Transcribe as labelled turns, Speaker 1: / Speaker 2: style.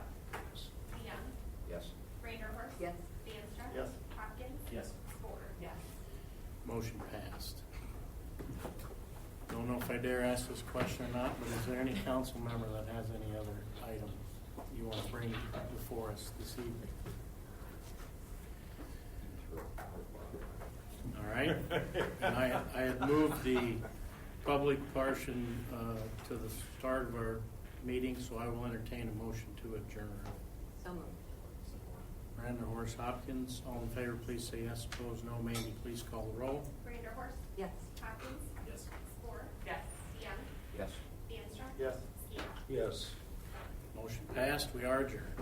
Speaker 1: Motion passed. Don't know if I dare ask this question or not, but is there any council member that has any other item you want to bring before us this evening? All right. And I, I had moved the public portion uh, to the start of our meeting, so I will entertain a motion to adjourn.
Speaker 2: So moved.
Speaker 1: Miranda Horace Hopkins, all in favor, please say yes. Opposed, no. Mandy, please call the roll.
Speaker 3: Brander Horst.
Speaker 2: Yes.
Speaker 3: Hopkins. Yes. Score.
Speaker 2: Yes.
Speaker 3: DeYoung.
Speaker 4: Yes.
Speaker 3: DeAnstruck.
Speaker 5: Yes.
Speaker 3: Steele.
Speaker 5: Yes.
Speaker 1: Motion passed, we are adjourned.